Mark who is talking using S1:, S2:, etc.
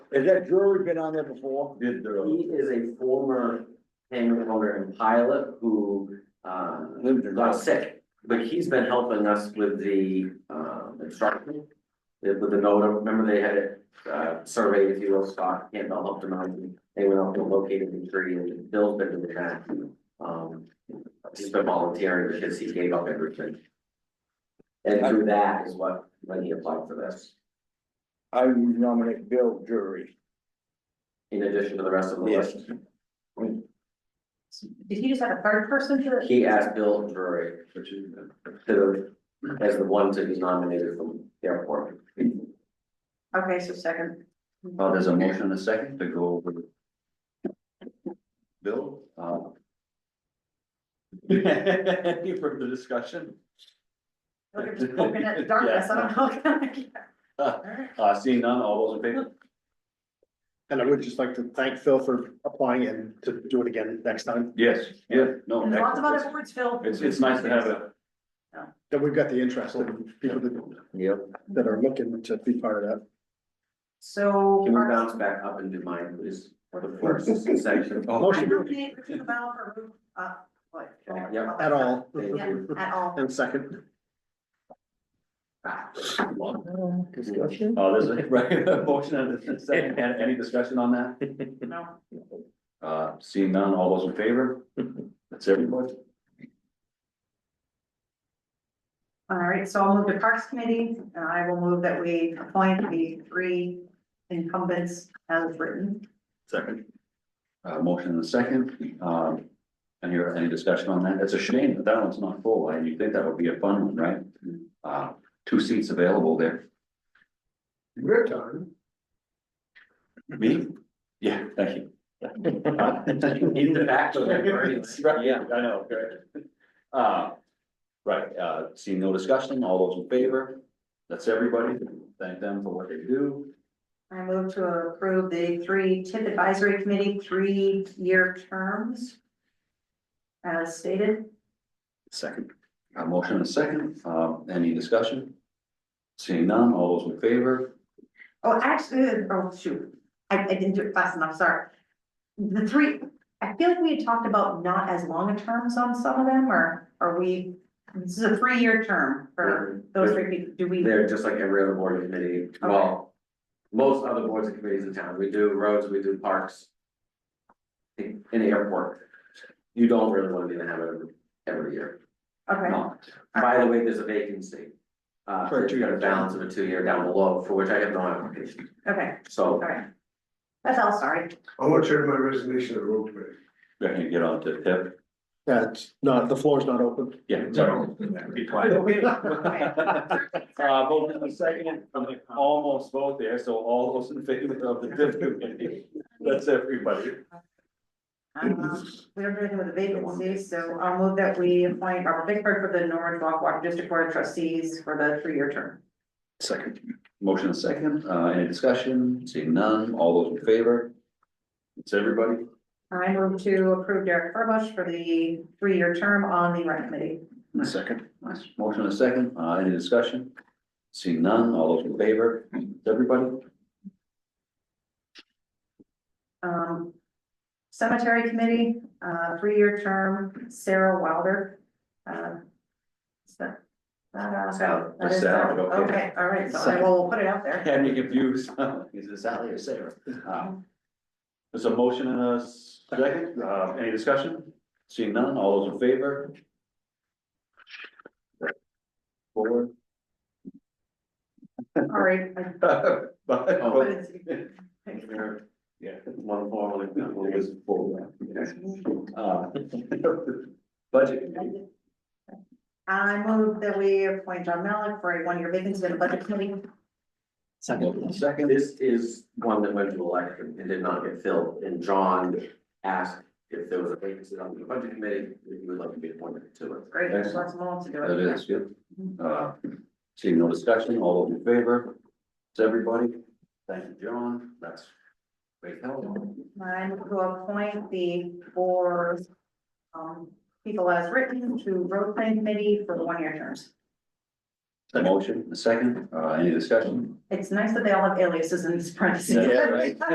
S1: Has that brewery been on there before?
S2: Did uh,
S3: He
S2: the,
S3: is a former hangar owner and pilot who, um,
S1: Lived in-
S3: got sick, but he's been helping us with the, um, instruction. With the NODA, remember they had it, uh, surveyed, if you will, Scott Campbell helped them out, and they went out and located the tree and Bill's been doing that. Um, he's been volunteering because he gave up everything. And through that is what, when he applied for this,
S1: I would nominate Bill Drury.
S3: in addition to the rest of the
S1: Yes.
S3: list,
S4: Did he just have a third person to?
S3: he asked Bill Drury.
S2: which is,
S3: to, as the one to be nominated from the airport.
S4: Okay, so second.
S2: well, there's a motion and a second to go over. the- Bill, uh. Any further discussion?
S4: Look at, looking at darkness, I don't know.
S2: Uh, seeing none, all those in favor?
S5: And I would just like to thank Phil for applying and to do it again next time,
S2: Yes, yeah, no.
S4: There's lots of other
S2: excellent.
S4: boards filled.
S2: It's, it's nice to have a.
S5: that we've got the interest and people that,
S3: Yep.
S5: that are looking to be part of
S4: So.
S3: Can we
S4: our-
S3: bounce back up and do mine, please, for the first section?
S5: that.
S4: I
S5: Motion
S4: nominate Richard Lavelle for roof, uh, what?
S3: Yeah.
S5: at all.
S3: Thank
S4: Yeah, at all.
S5: And second.
S3: Discussion?
S2: Oh, there's a, right, a motion and a second, and any discussion on that?
S4: No.
S2: Uh, seeing none, all those in favor? That's everybody.
S4: All right, so I'll move to Parks Committee, and I will move that we appoint the three incumbents as written.
S2: Second. Uh, motion and a second, um, and here, any discussion on that? It's a shame that that one's not full, and you think that would be a fun one, right?
S3: Hmm.
S2: Uh, two seats available there.
S5: Your turn.
S2: Me? Yeah, thank you.
S3: In the back of it, right?
S2: Right, yeah, I know, right. Uh, right, uh, seeing no discussion, all those in favor? That's everybody, thank them for what they do.
S4: I move to approve the three TIP Advisory Committee, three-year terms as stated.
S2: Second. A motion and a second, um, any discussion? Seeing none, all those in favor?
S4: Oh, actually, oh, shoot, I, I didn't do it fast enough, sorry. The three, I feel like we had talked about not as long a terms on some of them, or are we, this is a three-year term for those three people, do we?
S3: They're just like every other board and committee, well, most other boards and committees in town, we do roads, we do parks. In in the airport, you don't really want to be in the habit of every year.
S4: Okay,
S3: not. By the way, there's a vacancy. Uh,
S5: For a
S3: you've got a
S5: two-year term.
S3: balance of a two-year down below, for which I have no application,
S4: okay, all
S3: so.
S4: right. That's all, sorry.
S6: I want to turn my resignation to the road committee.
S2: Reckon you get on to Pip?
S5: Yeah, it's not, the floor's not open.
S2: Yeah. Be quiet. Uh, both in the second, I'm like almost both there, so all those in favor of the Pip committee, that's everybody.
S4: Um, we don't really know the vacancies, so I'll move that we appoint Robert Bickford for the Norwood Walk Water District Board of Trustees for the three-year term.
S2: Second. Motion and second, uh, any discussion? Seeing none, all those in favor? It's everybody,
S4: I move to approve Derek Furbush for the three-year term on the rec committee.
S2: second, nice, motion and second, uh, any discussion? Seeing none, all those in favor? It's everybody?
S4: Um, cemetery committee, uh, three-year term, Sarah Wilder. Um, is that, that out?
S3: Sal-
S4: That is
S2: Sal,
S4: out.
S2: okay.
S4: Okay, all right, so I will put it out there.
S2: Had me confused. Is it Sally or Sarah? Uh, There's a motion and a second. Uh, any discussion? Seeing none, all those in favor? Four.
S4: All right. I-
S2: Oh,
S4: but
S2: But-
S4: it's-
S2: Yeah, one more, like, that one was four. Uh, Budget. committee.
S4: I move that we appoint John Malik for a one-year vacancy in the budget committee.
S2: Second.
S3: This is one that went to election and did not get filled, and John asked if there was a vacancy on the budget committee, if he would like to be appointed to it.
S4: Great, there's lots more to do.
S2: That is good. Uh, seeing no discussion, all those in favor? It's everybody. Thank you, John. That's great help.
S4: I move to appoint the four, um, people as written to road plan committee for the one-year terms.
S2: A motion, a second, uh, any discussion?
S4: It's nice that they all have aliases in this parentheses.
S2: Yeah, right.